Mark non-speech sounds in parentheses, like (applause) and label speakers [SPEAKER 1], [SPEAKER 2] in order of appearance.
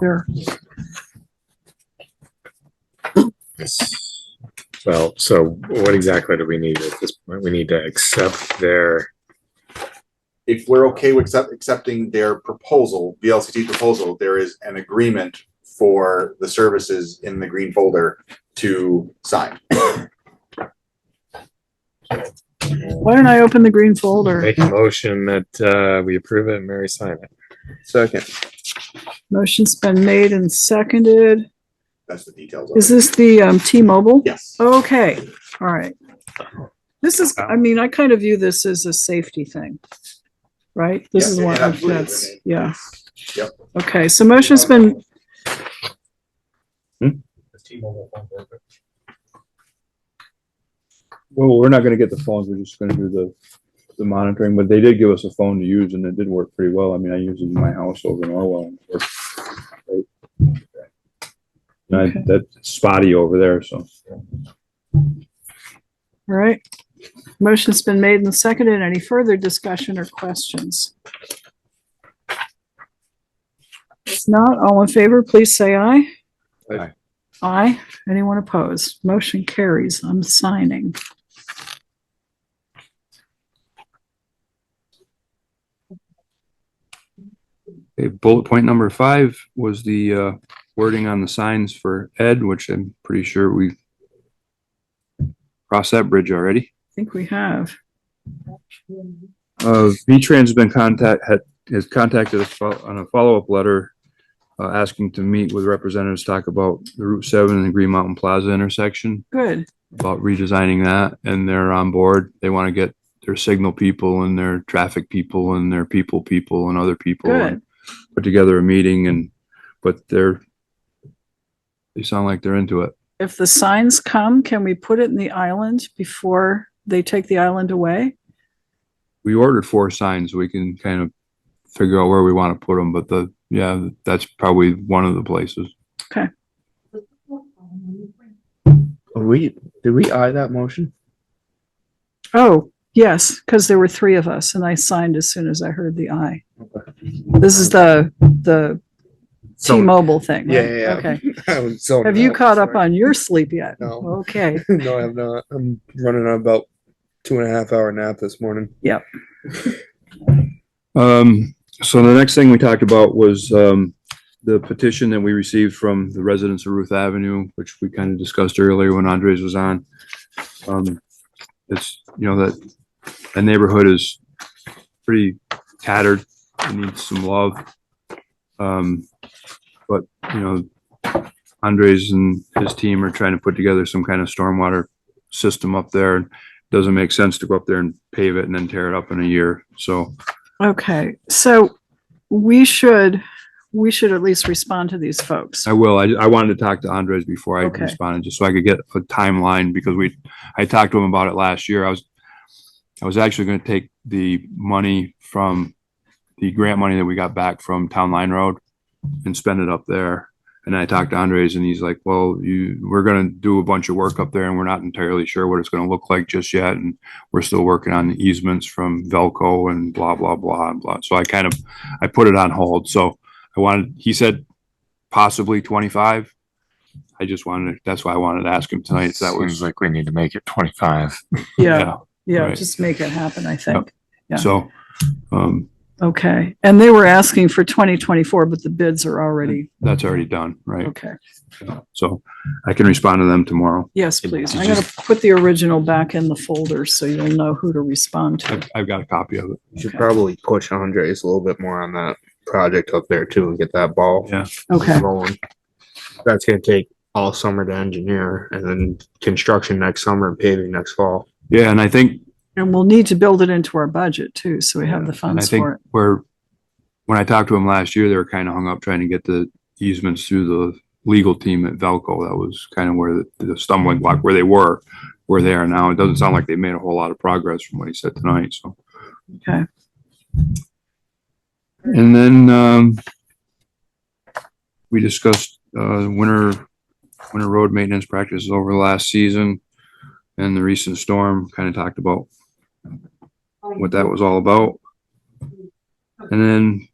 [SPEAKER 1] there.
[SPEAKER 2] Well, so what exactly do we need at this point? We need to accept their,
[SPEAKER 3] if we're okay with accept, accepting their proposal, VLCT proposal, there is an agreement for the services in the green folder to sign.
[SPEAKER 1] Why don't I open the green folder?
[SPEAKER 2] make a motion that, uh, we approve it and Mary sign it.
[SPEAKER 4] Second.
[SPEAKER 1] Motion's been made and seconded.
[SPEAKER 3] That's the details
[SPEAKER 1] Is
[SPEAKER 3] of it.
[SPEAKER 1] this the, um, T-Mobile?
[SPEAKER 3] Yes.
[SPEAKER 1] Okay, all right. This is, I mean, I kind of view this as a safety thing, right? This
[SPEAKER 3] Yeah,
[SPEAKER 1] is
[SPEAKER 3] it
[SPEAKER 1] one of
[SPEAKER 3] absolutely
[SPEAKER 1] that's,
[SPEAKER 3] is.
[SPEAKER 1] yeah.
[SPEAKER 3] Yep.
[SPEAKER 1] Okay, so motion's been,
[SPEAKER 4] Well, we're not gonna get the phones, we're just gonna do the, the monitoring, but they did give us a phone to use and it did work pretty well. I mean, I use it in my house over in Orwell. and it worked great. And I,
[SPEAKER 1] Okay.
[SPEAKER 4] that's spotty over there, so.
[SPEAKER 1] all right. Motion's been made and seconded. Any further discussion or questions? If not, all in favor, please say aye.
[SPEAKER 4] Aye.
[SPEAKER 1] Aye. Anyone opposed? Motion carries. I'm signing.
[SPEAKER 5] Okay, bullet point number five was the uh, wording on the signs for Ed, which I'm pretty sure we crossed that bridge already.
[SPEAKER 1] I think we have.
[SPEAKER 5] Uh, V-Trans has been contact, had, has contacted us fo- on a follow-up letter, uh, asking to meet with representatives, to talk about the Route Seven and the Green Mountain Plaza intersection,
[SPEAKER 1] Good.
[SPEAKER 5] about redesigning that, and they're on board. They want to get their signal people and their traffic people and their people people and other people.
[SPEAKER 1] Good.
[SPEAKER 5] and Put together a meeting and, but they're, they sound like they're into it.
[SPEAKER 1] if the signs come, can we put it in the island before they take the island away?
[SPEAKER 5] We ordered four signs. We can kind of figure out where we want to put them, but the, yeah, that's probably one of the places.
[SPEAKER 6] We, did we eye that motion?
[SPEAKER 1] Oh, yes, because there were three of us and I signed as soon as I heard the I. This is the, the
[SPEAKER 2] (laughs)
[SPEAKER 1] T-Mobile thing, right? Okay.
[SPEAKER 6] Okay.
[SPEAKER 1] Have you caught up on your sleep yet?
[SPEAKER 6] No.
[SPEAKER 1] Okay,
[SPEAKER 6] No, I have not. I'm running on about two and a half hour nap this morning.
[SPEAKER 5] Um, so the next thing we talked about was, um, the petition that we received from the residents of Ruth Avenue, which we kind of discussed earlier when Andres was on. Um, it's, you know, that, the neighborhood is pretty tattered, it needs some love. Um, but, you know, Andres and his team are trying to put together some kind of stormwater system up there. Doesn't make sense to go up there and pave it and then tear it up in a year, so.
[SPEAKER 1] okay. So we should, we should at least respond to these folks.
[SPEAKER 5] I will. I, I wanted to talk to Andres before I
[SPEAKER 1] Okay.
[SPEAKER 5] responded, just so I could get a timeline because we, I talked to him about it last year. I was, I was actually going to take the money from the grant money that we got back from Town Line Road and spend it up there. And I talked to Andres and he's like, well, you, we're going to do a bunch of work up there and we're not entirely sure what it's going to look like just yet. And we're still working on the easements from Velco and blah, blah, blah, and blah. So I kind of, I put it on hold. So I wanted, he said possibly twenty-five. I just wanted, that's why I wanted to ask him tonight. That was.
[SPEAKER 2] Seems like we need to make it twenty-five.
[SPEAKER 1] Yeah, yeah,
[SPEAKER 5] right.
[SPEAKER 1] just make it happen, I think. Yeah.
[SPEAKER 5] So, um,
[SPEAKER 1] Okay. And they were asking for 2024, but the bids are already,
[SPEAKER 5] that's already done, right?
[SPEAKER 1] okay.
[SPEAKER 5] So I can respond to them tomorrow.
[SPEAKER 1] Yes,
[SPEAKER 2] Did-
[SPEAKER 1] please.
[SPEAKER 2] did
[SPEAKER 1] I'm
[SPEAKER 2] you-
[SPEAKER 1] gonna put the original back in the folder so you'll know who to respond to.
[SPEAKER 5] I've, I've got a copy of it.
[SPEAKER 6] You should
[SPEAKER 1] Okay.
[SPEAKER 6] probably push Andres a little bit more on that project up there too and get that ball
[SPEAKER 5] Yeah.
[SPEAKER 1] Okay,
[SPEAKER 6] rolling. That's gonna take all summer to engineer and then construction next summer and paving next fall.
[SPEAKER 5] Yeah, and I think,
[SPEAKER 1] and we'll need to build it into our budget too, so we have the
[SPEAKER 5] and I
[SPEAKER 1] funds
[SPEAKER 5] think
[SPEAKER 1] for it.
[SPEAKER 5] we're, when I talked to him last year, they were kind of hung up trying to get the easements through the legal team at Velco. That was kind of where the- the stumbling block, where they were, where they are now. It doesn't sound like they made a whole lot of progress from what he said tonight, so.
[SPEAKER 1] Okay.
[SPEAKER 5] And then, um, we discussed, uh, winter, winter road maintenance practices over the last season and the recent storm, kind of talked about what that was all about. And then